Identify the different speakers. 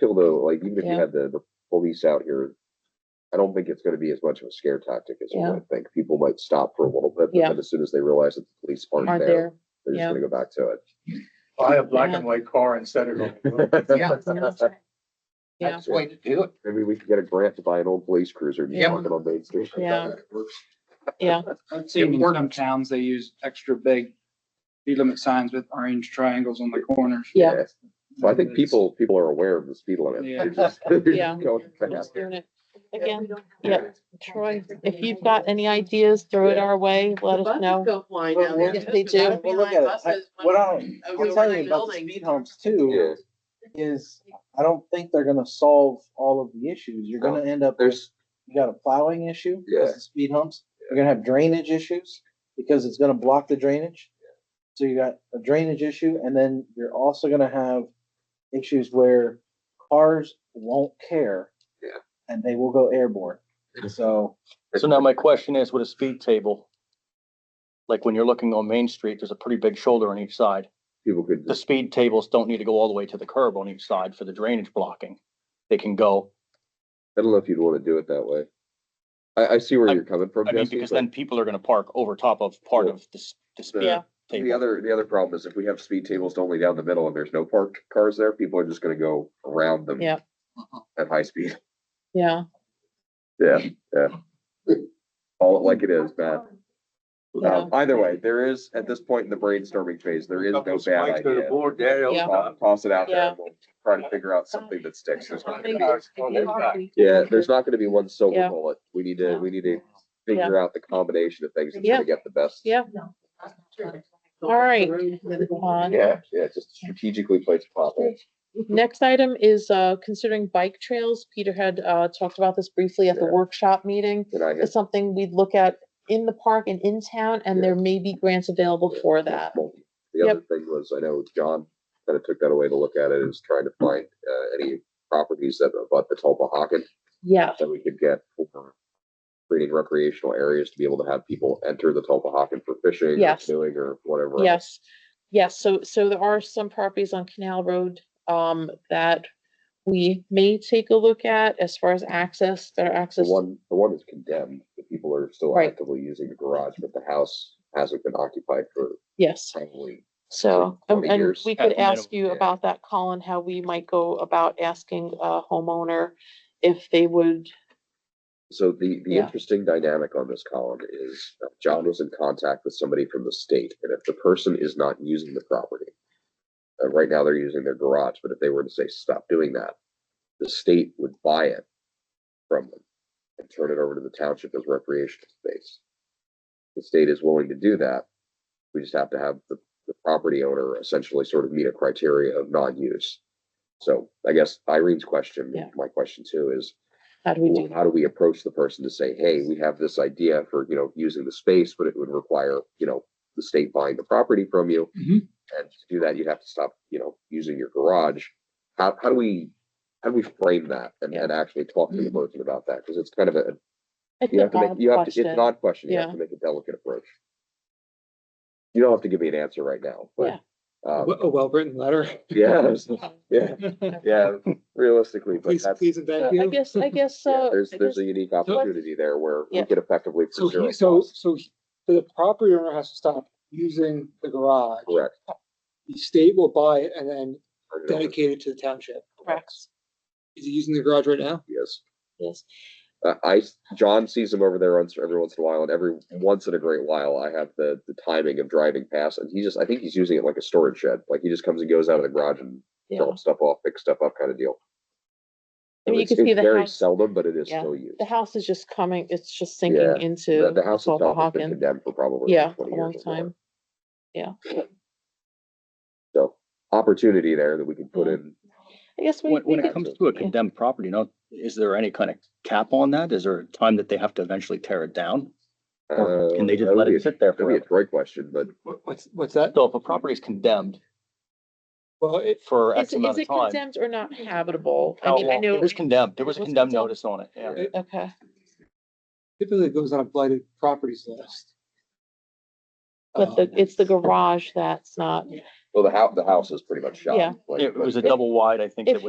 Speaker 1: feel though, like even if you
Speaker 2: Yeah.
Speaker 1: had the, the police out here, I don't think it's gonna be as much of a scare tactic as you
Speaker 2: Yeah.
Speaker 1: might think. People might stop for a little bit, but
Speaker 2: Yeah.
Speaker 1: then as soon as they realize that the police aren't
Speaker 2: aren't
Speaker 1: there,
Speaker 2: there.
Speaker 1: they're just
Speaker 2: yeah.
Speaker 1: gonna go back to it.
Speaker 3: Buy a black
Speaker 2: Yeah.
Speaker 3: and white car and set it on.
Speaker 4: Yeah.
Speaker 2: Yeah,
Speaker 4: That's the way to do it.
Speaker 1: Maybe we could get a grant to buy an old police cruiser, just
Speaker 4: Yeah.
Speaker 1: park it on Main Street.
Speaker 2: Yeah. yeah,
Speaker 5: I've seen in some towns, they use extra big speed limit signs with orange triangles on the corners.
Speaker 2: yeah,
Speaker 1: So I think people, people are aware of the speed limit.
Speaker 5: Yeah.
Speaker 1: They're just- they're just
Speaker 2: Yeah.
Speaker 1: going
Speaker 2: just
Speaker 1: fast.
Speaker 2: doing it. Again, yeah, Troy, if you've got any ideas, throw it our way, let us know.
Speaker 6: Go flying down there.
Speaker 2: Yes, they do.
Speaker 6: Gotta be
Speaker 7: Well, look
Speaker 6: like
Speaker 7: at it. I-
Speaker 6: buses
Speaker 7: What
Speaker 6: when-
Speaker 7: I'm,
Speaker 6: over
Speaker 7: I'm telling
Speaker 6: the
Speaker 7: you
Speaker 6: right
Speaker 7: about the
Speaker 6: building.
Speaker 7: speed humps too,
Speaker 1: Yeah.
Speaker 7: is I don't think they're gonna solve all of the issues. You're gonna end up,
Speaker 1: There's,
Speaker 7: you got a plowing issue
Speaker 1: Yeah.
Speaker 7: because of speed humps. You're gonna have drainage issues because it's gonna block the drainage. So you got a drainage issue and then you're also gonna have issues where cars won't care.
Speaker 1: Yeah.
Speaker 7: And they will go airborne. So,
Speaker 8: So now my question is, with a speed table, like when you're looking on Main Street, there's a pretty big shoulder on each side.
Speaker 1: people could
Speaker 8: The
Speaker 1: just,
Speaker 8: speed tables don't need to go all the way to the curb on each side for the drainage blocking. They can go,
Speaker 1: I don't know if you'd wanna do it that way. I, I see where
Speaker 8: I-
Speaker 1: you're coming from,
Speaker 8: I mean,
Speaker 1: Jesse,
Speaker 8: because
Speaker 1: but
Speaker 8: then people are gonna park over top of part
Speaker 1: Yeah.
Speaker 8: of the, s- the
Speaker 2: Yeah.
Speaker 1: the
Speaker 8: speed table.
Speaker 1: other, the other problem is if we have speed tables only down the middle and there's no parked cars there, people are just gonna go around them.
Speaker 2: Yeah.
Speaker 1: At high speed.
Speaker 2: Yeah,
Speaker 1: Yeah, yeah. Call it like it is, Matt.
Speaker 2: yeah,
Speaker 1: Um, either way, there is, at this point in the brainstorming phase, there is no bad idea.
Speaker 3: board there.
Speaker 2: Yeah.
Speaker 1: Uh, Toss it out there
Speaker 2: Yeah.
Speaker 1: and we'll try to figure out something that sticks. There's not gonna be-
Speaker 3: Well,
Speaker 1: Yeah, there's not gonna be one silver
Speaker 2: Yeah.
Speaker 1: bullet. We need to,
Speaker 2: Yeah.
Speaker 1: we need to figure out the combination of things that's
Speaker 2: Yeah.
Speaker 1: gonna get the best.
Speaker 2: yeah, all right. Uh,
Speaker 1: Yeah, yeah, just strategically place properly.
Speaker 2: Next item is uh, considering bike trails. Peter had uh, talked about this briefly at the
Speaker 1: Yeah.
Speaker 2: workshop meeting.
Speaker 1: Can I hit
Speaker 2: It's something we'd look at in the park and in town, and there may be grants available for that.
Speaker 1: The other thing was, I know John kind of took that away to look at it, is trying to find, uh, any properties that abut the Tulpahawken
Speaker 2: Yeah,
Speaker 1: that we could get for creating recreational areas to be able to have people enter the Tulpahawken for fishing or
Speaker 2: Yes.
Speaker 1: canoeing or whatever. else.
Speaker 2: yes, yes. So, so there are some properties on Canal Road um, that we may take a look at as far as access, better
Speaker 1: The
Speaker 2: access.
Speaker 1: one, the one is condemned, the people are still
Speaker 2: Right.
Speaker 1: actively using the garage, but the house hasn't been occupied for
Speaker 2: Yes.
Speaker 1: probably
Speaker 2: So, um,
Speaker 1: 20
Speaker 2: and
Speaker 1: years
Speaker 2: we
Speaker 8: at
Speaker 2: could
Speaker 8: the minimum,
Speaker 2: ask you
Speaker 1: yeah.
Speaker 2: about that, Colin, how we might go about asking a homeowner if they would,
Speaker 1: So the, the
Speaker 2: Yeah.
Speaker 1: interesting dynamic on this column is uh, John was in contact with somebody from the state, and if the person is not using the property, uh, right now they're using their garage, but if they were to say, stop doing that, the state would buy it from them and turn it over to the township as recreational space. The state is willing to do that. We just have to have the, the property owner essentially sort of meet a criteria of non-use. So I guess Irene's question,
Speaker 2: Yeah.
Speaker 1: my question too, is
Speaker 2: how do we do?
Speaker 1: well, how do we approach the person to say, hey, we have this idea for, you know, using the space, but it would require, you know, the state buying the property from you.
Speaker 3: Mm-hmm.
Speaker 5: Mhm.
Speaker 1: And to do that, you'd have to stop, you know, using your garage. How, how do we, how do we frame that and, and actually talk to the
Speaker 3: Mm-hmm.
Speaker 1: person about that? Because it's kind of a,
Speaker 2: It's
Speaker 1: you
Speaker 2: an
Speaker 1: have to make,
Speaker 2: odd
Speaker 1: you have to, it's
Speaker 2: question.
Speaker 1: an odd question. You have
Speaker 2: Yeah.
Speaker 1: to make a delicate approach. You don't have to give me an answer right now, but, um,
Speaker 3: A well-written letter.
Speaker 1: yeah, yeah,
Speaker 2: Yeah.
Speaker 1: yeah, realistically, but
Speaker 3: Please,
Speaker 1: that's,
Speaker 3: please and
Speaker 2: So
Speaker 3: thank
Speaker 2: I
Speaker 3: you.
Speaker 2: guess, I guess,
Speaker 1: yeah,
Speaker 2: uh,
Speaker 1: there's,
Speaker 2: I
Speaker 1: there's
Speaker 2: guess-
Speaker 1: a unique opportunity there where we
Speaker 2: Yeah.
Speaker 1: could effectively.
Speaker 3: So
Speaker 1: preserve
Speaker 3: he, so,
Speaker 1: costs.
Speaker 3: so he- the property owner has to stop using the garage.
Speaker 1: Correct.
Speaker 3: The state will buy it and then
Speaker 1: Turn it over.
Speaker 3: dedicate it to the township.
Speaker 2: correct.
Speaker 3: Is he using the garage right now?
Speaker 1: Yes.
Speaker 2: Yes.
Speaker 1: Uh, I, John sees him over there once, every once in a while and every, once in a great while, I have the, the timing of driving past and he just, I think he's using it like a storage shed. Like he just comes and goes out of the garage and
Speaker 2: Yeah.
Speaker 1: dumps stuff off, picks stuff up kind of deal.
Speaker 2: I mean, you
Speaker 1: It's
Speaker 2: can see
Speaker 1: it's
Speaker 2: the
Speaker 1: very
Speaker 2: house,
Speaker 1: seldom, but it is
Speaker 2: Yeah.
Speaker 1: still used.
Speaker 2: the house is just coming, it's just
Speaker 1: Yeah,
Speaker 2: sinking
Speaker 1: the-
Speaker 2: into
Speaker 1: The, the house itself has been
Speaker 2: Hawken.
Speaker 1: condemned for probably
Speaker 2: Yeah, a
Speaker 1: 20 years
Speaker 2: long
Speaker 1: or more.
Speaker 2: time.
Speaker 1: So opportunity there that we can put in.
Speaker 2: I guess we,
Speaker 8: When, when
Speaker 2: we
Speaker 8: it
Speaker 2: could-
Speaker 8: comes to a
Speaker 2: yeah.
Speaker 8: condemned property, you know, is there any kind of cap on that? Is there a time that they have to eventually tear it down? Or
Speaker 1: uh,
Speaker 8: Can they
Speaker 1: that
Speaker 8: just
Speaker 1: would
Speaker 8: let
Speaker 1: be a-
Speaker 8: it sit there
Speaker 1: That'd be a
Speaker 8: forever?
Speaker 1: great question, but
Speaker 3: What, what's, what's that?
Speaker 8: So if a property is condemned
Speaker 3: Well, it,
Speaker 8: for
Speaker 2: is,
Speaker 8: X
Speaker 2: is
Speaker 8: amount
Speaker 2: it
Speaker 8: of time.
Speaker 2: condemned or not habitable? I
Speaker 8: How
Speaker 2: mean, I
Speaker 8: long?
Speaker 2: know,
Speaker 8: It was condemned. There was a
Speaker 2: It was
Speaker 8: condemned
Speaker 2: condemned?
Speaker 8: notice on it, yeah.
Speaker 1: Yeah.
Speaker 2: okay,
Speaker 3: typically it goes on a blighted properties list.
Speaker 2: but the,
Speaker 3: Um,
Speaker 2: it's the garage that's not.
Speaker 1: well, the house, the house is pretty much shot.
Speaker 2: Yeah.
Speaker 1: Like-
Speaker 8: It was a
Speaker 1: like-
Speaker 8: double wide, I think,
Speaker 2: If
Speaker 8: that was.